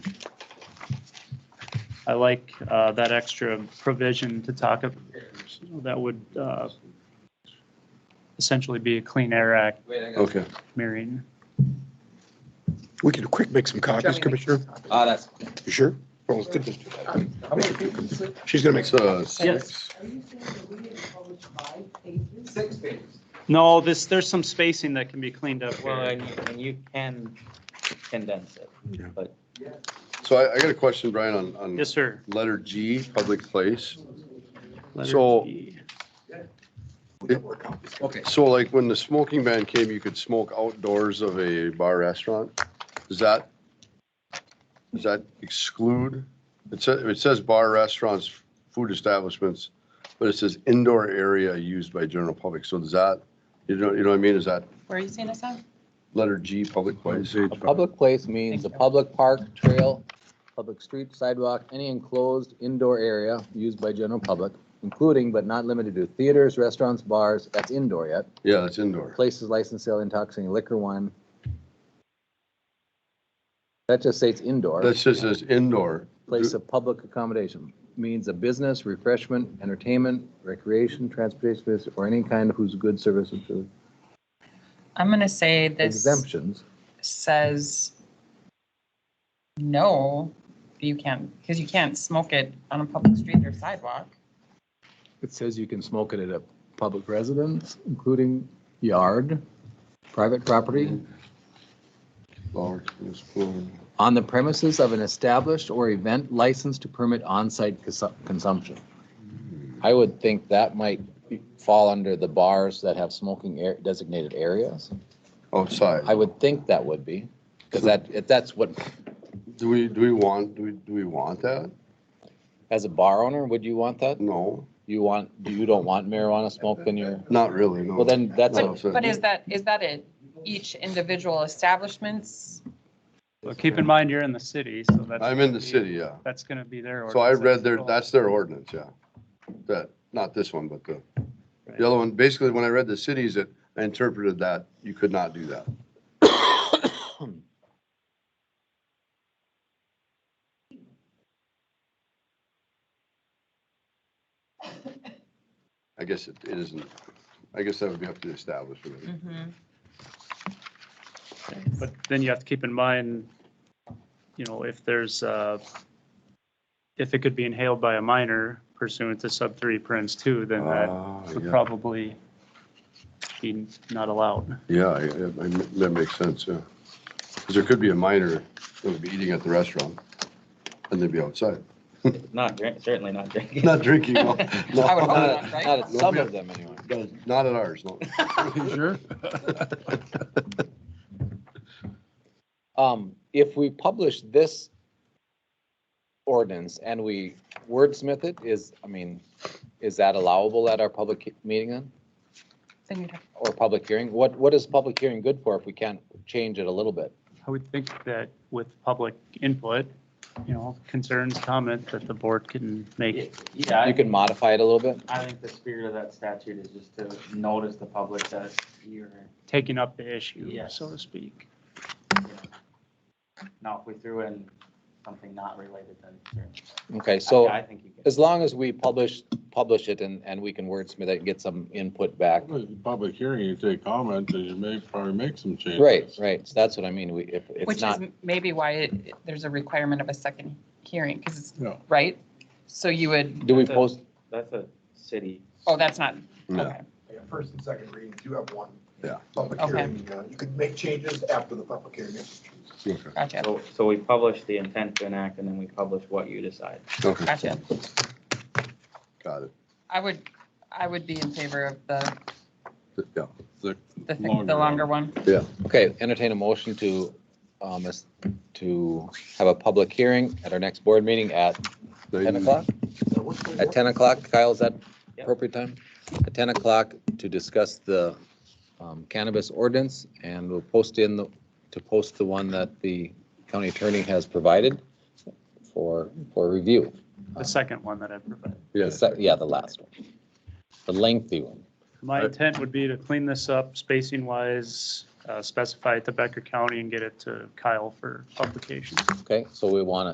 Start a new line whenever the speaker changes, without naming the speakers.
I like uh, that extra provision to talk, of- that would uh, essentially be a Clean Air Act
Okay.
mirroring.
We could quick make some copies, Commissioner.
Ah, that's.
You sure? Well, let's get this-
How many pages?
She's gonna make some.
So,
Yes.
Are you saying that we didn't publish five pages?
Six pages.
No, this, there's some spacing that can be cleaned up.
Well,
here.
and you, and you can condense it.
so I, I got a question, Brian, on, on
Yes, sir.
letter G, public place.
Letter
So-
D.
Okay.
So like when the smoking ban came, you could smoke outdoors of a bar restaurant? Does that, does that exclude? It says, it says bar restaurants, food establishments, but it says indoor area used by general public. So does that, you know, you know what I mean? Is that
Where are you seeing this at?
letter G, public place?
Page
A public place means a public park, trail, public street, sidewalk, any enclosed indoor area used by general public, including but not limited to theaters, restaurants, bars, that's indoor yet,
Yeah, that's indoor.
places licensed to sell intoxicating liquor, wine. That just states indoor.
That just says indoor.
Place of public accommodation means a business, refreshment, entertainment, recreation, transportation, business, or any kind of whose good service or food.
I'm gonna say this
exemptions.
says no, you can't, because you can't smoke it on a public street or sidewalk.
It says you can smoke it at a public residence, including yard, private property,
Large, spoon.
on the premises of an established or event licensed to permit on-site consu- consumption. I would think that might be- fall under the bars that have smoking air- designated areas.
Outside.
I would think that would be, because that, if that's what,
Do we, do we want, do we, do we want that?
as a bar owner, would you want that?
No,
You want, you don't want marijuana smoked in your,
not really, no.
well, then that's a
No, so-
But is that, is that it? Each individual establishment's?
Well, Keep in mind, you're in the city, so that's.
I'm in the city, yeah.
That's going to be their.
So I
ordinance
read
as
their,
well.
that's their ordinance, yeah. That, not this one, but the, the other one, basically, when I read the cities, it, I interpreted that you could not do that. I guess it it isn't, I guess that would be up to the establishment.
But then you have to keep in mind, you know, if there's, uh, if it could be inhaled by a minor pursuant to sub three parens two, then that
Ah,
would
yeah.
probably be not allowed.
Yeah, I- I- I- that makes sense, yeah. Because there could be a minor that would be eating at the restaurant, and they'd be outside,
Not drink, certainly not drinking.
not drinking. no, no,
I would hope
Not
not,
at-
not
right?
at some of them anyway.
not at ours, no.
Sure.
Um, if we publish this ordinance and we wordsmith it, is, I mean, is that allowable at our public he- meeting then?
Then you'd have-
Or public hearing? What, what is public hearing good for if we can't change it a little bit?
I would think that with public input, you know, concerns, comment, that the board can
Yeah,
make.
Yeah,
You
I,
can modify it a little bit?
I think the spirit of that statute is just to notice the public that you're,
taking up the issue,
Yes.
so to speak.
now if we threw in something not related, then. certainly.
Okay, so
I I think you can.
as long as we publish, publish it and, and we can wordsmith it and get some input back.
Public hearing, you take comment, and you may probably make some changes.
Right, right. So that's what I mean. We, if it's
Which
not.
is maybe why it- there's a requirement of a second hearing, because it's,
Yeah.
right? So you would,
Do we post,
That's a city.
oh, that's not,
No.
okay.
Yeah, first and second reading, you have one.
Yeah.
Public
Okay.
hearing, uh, you can make changes after the public hearing.
Okay,
Gotcha,
So, so we publish the intent to enact and then we publish what you decide.
okay,
gotcha.
got it,
I would, I would be in favor of the,
yeah.
the, thi- the longer one.
Okay, entertain a motion to, um, is- to have a public hearing at our next board meeting at ten o'clock? At ten o'clock, Kyle, is that
Yep.
appropriate time? At ten o'clock to discuss the um, cannabis ordinance and we'll post in the, to post the one that the county attorney has provided for, for review.
The second one that I provided.
The
Yes,
sec- Yeah, the last one. The lengthy one.
My intent would be to clean this up spacing wise, uh, specify it to Becker County and get it to Kyle for publication.
Okay, so we want to